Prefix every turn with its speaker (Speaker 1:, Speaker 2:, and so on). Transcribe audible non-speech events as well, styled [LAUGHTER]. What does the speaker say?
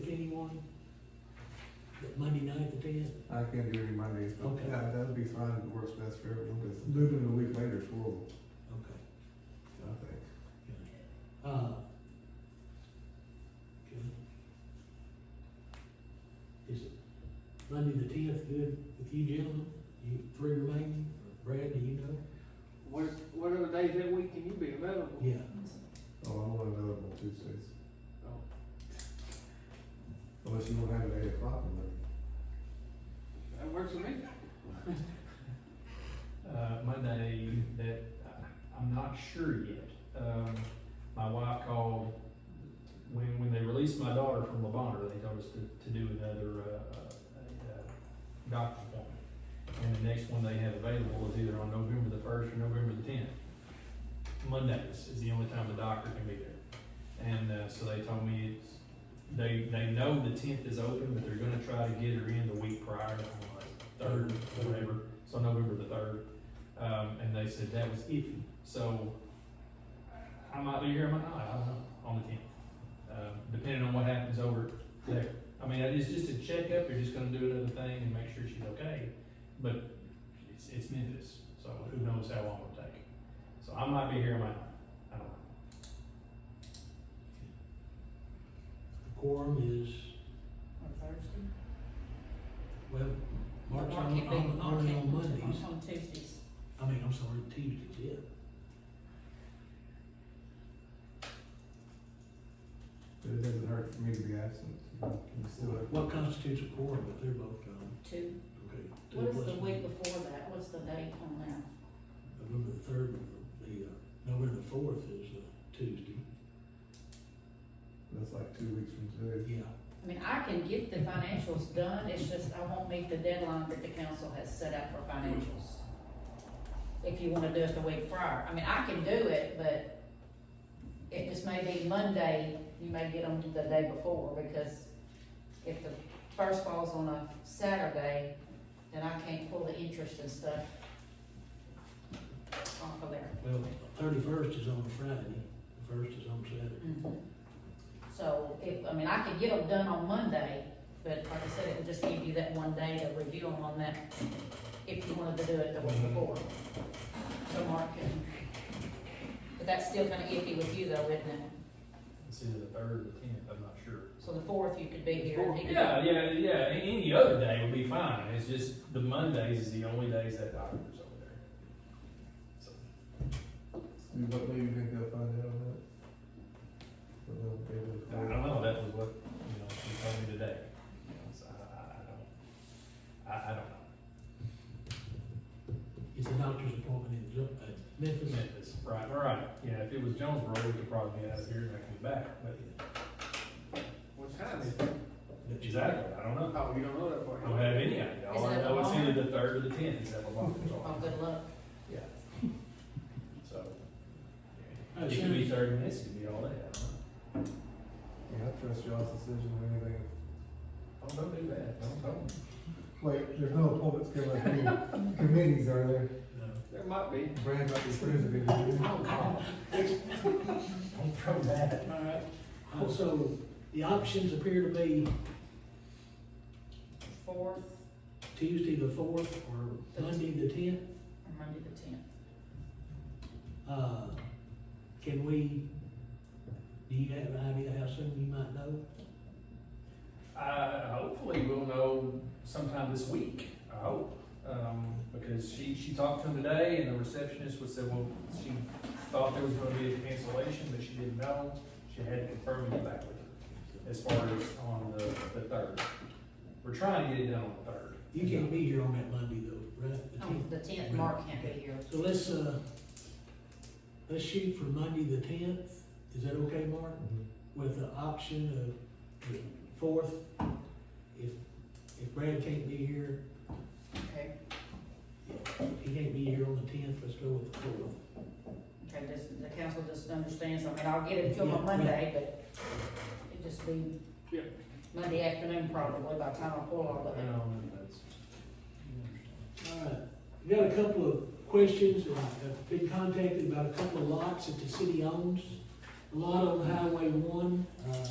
Speaker 1: problem? That Monday night at ten?
Speaker 2: I can't do any Mondays, but
Speaker 1: Okay. Mm-hmm.
Speaker 2: yeah, that'd be fine, it works best for everyone, because moving a week later is horrible,
Speaker 1: Okay.
Speaker 2: I think.
Speaker 1: Uh, okay. Is it Monday the tenth good with you gentlemen? You three remaining, Or Brad, do you know?
Speaker 3: What, what other days that week can you be available?
Speaker 1: Yeah,
Speaker 2: Oh, I'm only available Tuesdays,
Speaker 3: Oh,
Speaker 2: unless you don't have it at eight o'clock in there.
Speaker 3: That works for me.
Speaker 4: uh, Monday that I- I'm not sure yet. Um, my wife called, when, when they released my daughter from Lavonder, they told us to, to do another, uh, uh, a doctor's appointment. And the next one they have available is either on November the first or November the tenth. Mondays is the only time the doctor can be there. And, uh, so they told me it's, they, they know the tenth is open, but they're gonna try to get her in the week prior, on like third, whatever, so November the third. Um, and they said that was iffy. So I might be here, I might not, I don't know, on the tenth. Um, depending on what happens over there. I mean, it's just a checkup, you're just gonna do another thing and make sure she's okay. But it's, it's Memphis, so who knows how long it'll take. So I might be here, I might not, I don't know.
Speaker 1: the quorum is,
Speaker 5: On Thursday?
Speaker 1: well, Mark's
Speaker 5: Mark
Speaker 1: on,
Speaker 5: can't
Speaker 1: on,
Speaker 5: be-
Speaker 1: on,
Speaker 5: Mark
Speaker 1: on
Speaker 5: can't-
Speaker 1: Mondays.
Speaker 5: On Tuesdays.
Speaker 1: I mean, I'm sorry, Tuesdays, yeah.
Speaker 2: But it doesn't hurt for me to be absent, you know, you still have.
Speaker 1: What constitutes a quorum if they're both gone?
Speaker 5: Two.
Speaker 1: Okay. two
Speaker 5: What is
Speaker 1: plus
Speaker 5: the
Speaker 1: one.
Speaker 5: week before that? What's the date on that?
Speaker 1: November the third, the, uh, November the fourth is, uh, Tuesday.
Speaker 2: That's like two weeks from today.
Speaker 1: Yeah,
Speaker 5: I mean, I can get the financials done, it's just I won't meet the deadline that the council has set out for financials. If you wanna do it the week prior, I mean, I can do it, but it just may be Monday, you may get them the day before, because if the first falls on a Saturday, then I can't pull the interest and stuff off of there.
Speaker 1: well, thirty-first is on Friday, the first is on Saturday.
Speaker 5: Mhm. So, if, I mean, I could get them done on Monday, but like I said, it would just give you that one day to review them on that, if you wanted to do it the week before. So Mark can, but that's still kinda iffy with you though, isn't it?
Speaker 4: It's either the third or the tenth, I'm not sure.
Speaker 5: So the fourth, you could be here. and he could-
Speaker 4: Yeah, yeah, yeah, A- any other day would be fine. It's just the Mondays is the only days that doctor's over there. So
Speaker 2: Do you- What day you think they'll find out on that? Or they'll be able to-
Speaker 4: I don't know, that was what, you know, she told me today. You know, so I, I, I don't, I, I don't know.
Speaker 1: It's a doctor's appointment in Ju- uh, Memphis.
Speaker 4: Memphis, right, right, yeah, if it was Jonesboro, we could probably get out of here and I come back, but
Speaker 3: What time is it?
Speaker 4: exactly, I don't know.
Speaker 3: Oh, you don't know that part?
Speaker 4: I don't have any idea. All
Speaker 5: Is
Speaker 4: I
Speaker 5: it
Speaker 4: know is
Speaker 5: Lamar?
Speaker 4: either the third or the tenth is that Lamar's
Speaker 5: Oh,
Speaker 4: on,
Speaker 5: good luck.
Speaker 4: yeah. So,
Speaker 1: Oh,
Speaker 4: yeah. it could be thirty minutes, it could be all day, I don't know.
Speaker 2: Yeah, I trust y'all's decision on anything.
Speaker 4: Oh, don't do that, don't, don't.
Speaker 2: Wait, there's no appointments coming up,
Speaker 1: [LAUGHS]
Speaker 2: any committees are there?
Speaker 3: There might be.
Speaker 2: Brad might be president. Oh,
Speaker 4: Don't throw that.
Speaker 3: All right.
Speaker 1: Also, the options appear to be
Speaker 5: Fourth,
Speaker 1: Tuesday the fourth or Monday the tenth.
Speaker 5: or Monday the tenth.
Speaker 1: Uh, can we, do you have an idea how soon you might know?
Speaker 4: Uh, hopefully we'll know sometime this week, I hope. Um, because she, she talked to him today and the receptionist was said, well, she thought there was gonna be a cancellation, but she didn't know. She had to confirm it back with her as far as on the, the third. We're trying to get it done on the third.
Speaker 1: You can't be here on that Monday though, right? The
Speaker 5: On
Speaker 1: 10th.
Speaker 5: Oh, the tenth, Mark can't be here.
Speaker 1: So let's, uh, let's shoot for Monday the tenth. Is that okay, Mark? With the option of the fourth, if, if Brad can't be here,
Speaker 5: Okay,
Speaker 1: He can't be here on the tenth, let's go with the fourth.
Speaker 5: okay, just, the council just understands, I mean, I'll get it to them on
Speaker 1: Yeah, right.
Speaker 5: Monday, but it'd just be
Speaker 3: Yeah.
Speaker 5: Monday afternoon probably by the time I pull all of it.
Speaker 4: Um, that's.
Speaker 1: Alright, we got a couple of questions, and I've been contacted about a couple of lots that the city owns. A lot on Highway one, uh,